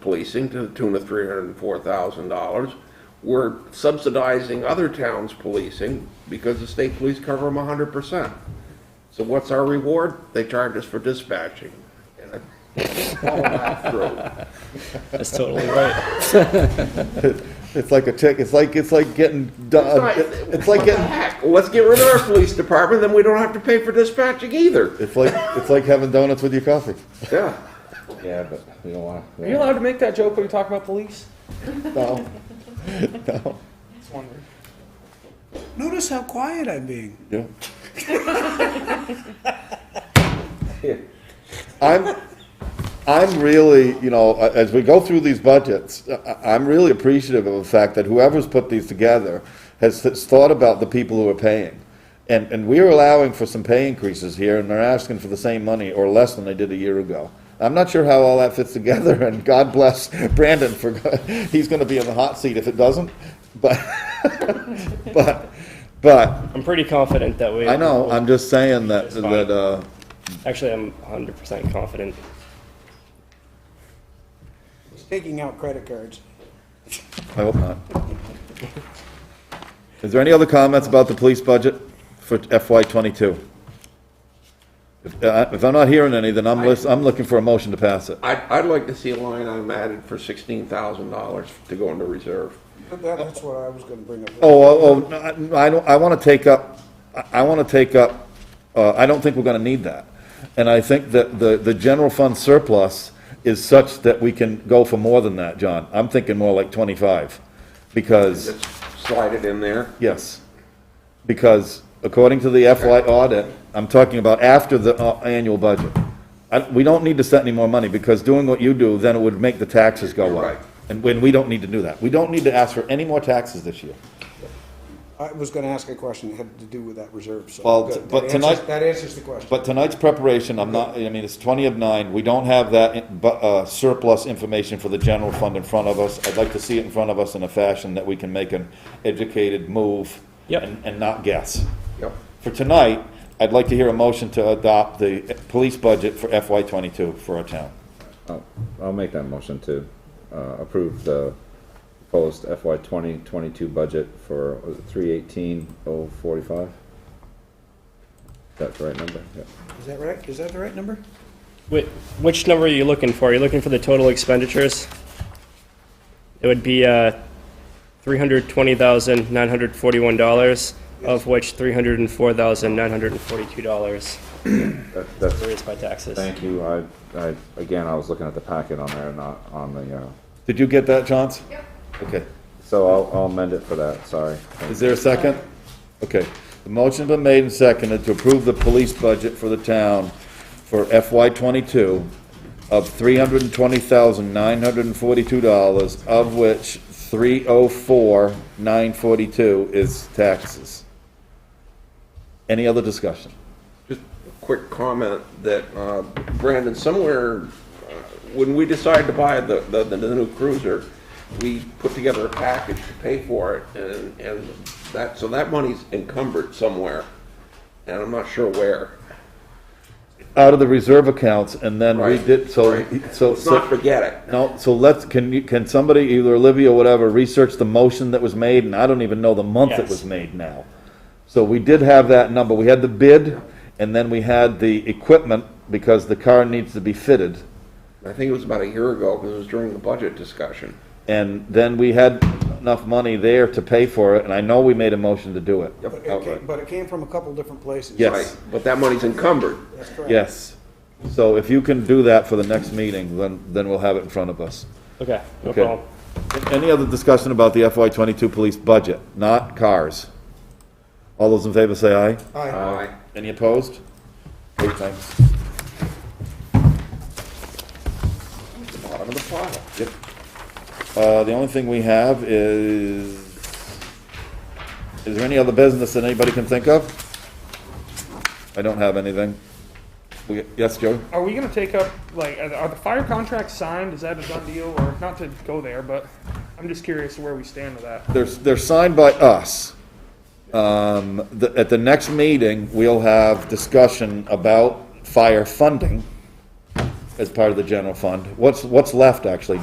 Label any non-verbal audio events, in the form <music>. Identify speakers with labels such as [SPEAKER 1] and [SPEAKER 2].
[SPEAKER 1] policing to the tune of three hundred and four thousand dollars. We're subsidizing other towns' policing because the state police cover them hundred percent. So what's our reward? They charge us for dispatching. And I follow that through.
[SPEAKER 2] That's totally right.
[SPEAKER 3] It's like a tick, it's like, it's like getting, do-
[SPEAKER 1] It's
[SPEAKER 3] uh, it's like getting,
[SPEAKER 1] Heck, let's get rid of our police department, then we don't have to pay for dispatching either.
[SPEAKER 3] it's like, it's like having donuts with your coffee.
[SPEAKER 1] Yeah.
[SPEAKER 3] Yeah, but you don't wanna.
[SPEAKER 2] Are you allowed to make that joke when we talk about police?
[SPEAKER 3] No.
[SPEAKER 2] It's wonderful.
[SPEAKER 4] Notice how quiet I'm being.
[SPEAKER 3] Yeah.
[SPEAKER 4] <laughs>
[SPEAKER 3] I'm, I'm really, you know, a- as we go through these budgets, I- I'm really appreciative of the fact that whoever's put these together has th- thought about the people who are paying. And, and we are allowing for some pay increases here, and they're asking for the same money or less than they did a year ago. I'm not sure how all that fits together, <laughs> and God bless Brandon for, <laughs> he's gonna be in the hot seat if it doesn't, but, <laughs> but, but,
[SPEAKER 2] I'm pretty confident that we.
[SPEAKER 3] I know, I'm just saying that,
[SPEAKER 2] It's fine.
[SPEAKER 3] that, uh,
[SPEAKER 2] Actually, I'm 100% confident.
[SPEAKER 4] He's taking out credit cards.
[SPEAKER 3] I hope not. Is there any other comments about the police budget for FY twenty-two? If, uh, if I'm not hearing any, then I'm lis- I'm looking for a motion to pass it.
[SPEAKER 1] I'd, I'd like to see a line item added for sixteen thousand dollars to go into reserve.
[SPEAKER 4] But that- That's what I was gonna bring up.
[SPEAKER 3] Oh, oh, oh, no, I, I don't, I wanna take up, I, I wanna take up, uh, I don't think we're gonna need that. And I think that the, the general fund surplus is such that we can go for more than that, John. I'm thinking more like twenty-five, because.
[SPEAKER 1] Just slide it in there.
[SPEAKER 3] Yes, because according to the FY audit, I'm talking about after the uh, annual budget. I, we don't need to set any more money, because doing what you do, then it would make the taxes go
[SPEAKER 1] You're right.
[SPEAKER 3] up. And when, we don't need to do that. We don't need to ask for any more taxes this year.
[SPEAKER 4] I was gonna ask a question that had to do with that reserve, so.
[SPEAKER 3] Well,
[SPEAKER 4] good.
[SPEAKER 3] but
[SPEAKER 4] That
[SPEAKER 3] tonight-
[SPEAKER 4] answers- That answers the question.
[SPEAKER 3] But tonight's preparation, I'm not, I mean, it's twenty of nine, we don't have that, in- bu- uh, surplus information for the general fund in front of us. I'd like to see it in front of us in a fashion that we can make an educated move.
[SPEAKER 2] Yep.
[SPEAKER 3] And, and not guess.
[SPEAKER 1] Yep.
[SPEAKER 3] For tonight, I'd like to hear a motion to adopt the police budget for FY twenty-two for our town.
[SPEAKER 5] I'll- I'll make that motion to uh, approve the proposed FY 2022 budget for 318,045. Is that the right number? Yeah.
[SPEAKER 4] Is that right? Is that the right number?
[SPEAKER 2] Whi- Which number are you looking for? Are you looking for the total expenditures? It would be uh, $320,941, of which $304,942
[SPEAKER 5] That- That's,
[SPEAKER 2] were raised by taxes.
[SPEAKER 5] thank you. I, I, again, I was looking at the packet on there, not on the, uh,
[SPEAKER 3] Did you get that, Johns? Yep. Okay.
[SPEAKER 5] so I'll I'll amend it for that, sorry.
[SPEAKER 3] Is there a second? Okay. The motion's been made and seconded to approve the police budget for the town for FY twenty-two of three hundred and twenty thousand, nine hundred and forty-two dollars, of which three oh four, nine forty-two is taxes. Any other discussion?
[SPEAKER 1] Just a quick comment that, uh, Brandon, somewhere, uh, when we decided to buy the, the, the new cruiser, we put together a package to pay for it and, and that, so that money's encumbered somewhere. And I'm not sure where.
[SPEAKER 3] Out of the reserve accounts, and then we
[SPEAKER 1] Right,
[SPEAKER 3] did, so,
[SPEAKER 1] right.
[SPEAKER 3] so.
[SPEAKER 1] Let's not forget it.
[SPEAKER 3] No, so let's, can you, can somebody, either Olivia or whatever, research the motion that was made, and I don't even know the month it
[SPEAKER 2] Yes.
[SPEAKER 3] was made now. So we did have that number, we had the bid, and then we had the equipment, because the car needs to be fitted.
[SPEAKER 1] I think it was about a year ago, because it was during the budget discussion.
[SPEAKER 3] And then we had enough money there to pay for it, and I know we made a motion to do it.
[SPEAKER 4] But it
[SPEAKER 3] Outright.
[SPEAKER 4] came, but it came from a couple different places.
[SPEAKER 3] Yes.
[SPEAKER 1] Right, but that money's encumbered.
[SPEAKER 4] That's correct.
[SPEAKER 3] Yes, so if you can do that for the next meeting, then, then we'll have it in front of us.
[SPEAKER 2] Okay, no
[SPEAKER 3] Okay.
[SPEAKER 2] problem.
[SPEAKER 3] Any other discussion about the FY twenty-two police budget, not cars? All those in favor say aye.
[SPEAKER 4] Aye.
[SPEAKER 1] Aye.
[SPEAKER 3] Any opposed? Eight times.
[SPEAKER 1] Bottom of the pile.
[SPEAKER 3] Yep. Uh, the only thing we have is, is there any other business that anybody can think of? I don't have anything. We, yes, Joe?
[SPEAKER 6] Are we gonna take up like are the, are the fire contracts signed? Is that a done deal or not to go there? But I'm just curious where we stand with that.
[SPEAKER 3] They're, they're signed by us. Um, the, at the next meeting, we'll have discussion about fire funding as part of the general fund. What's, what's left, actually,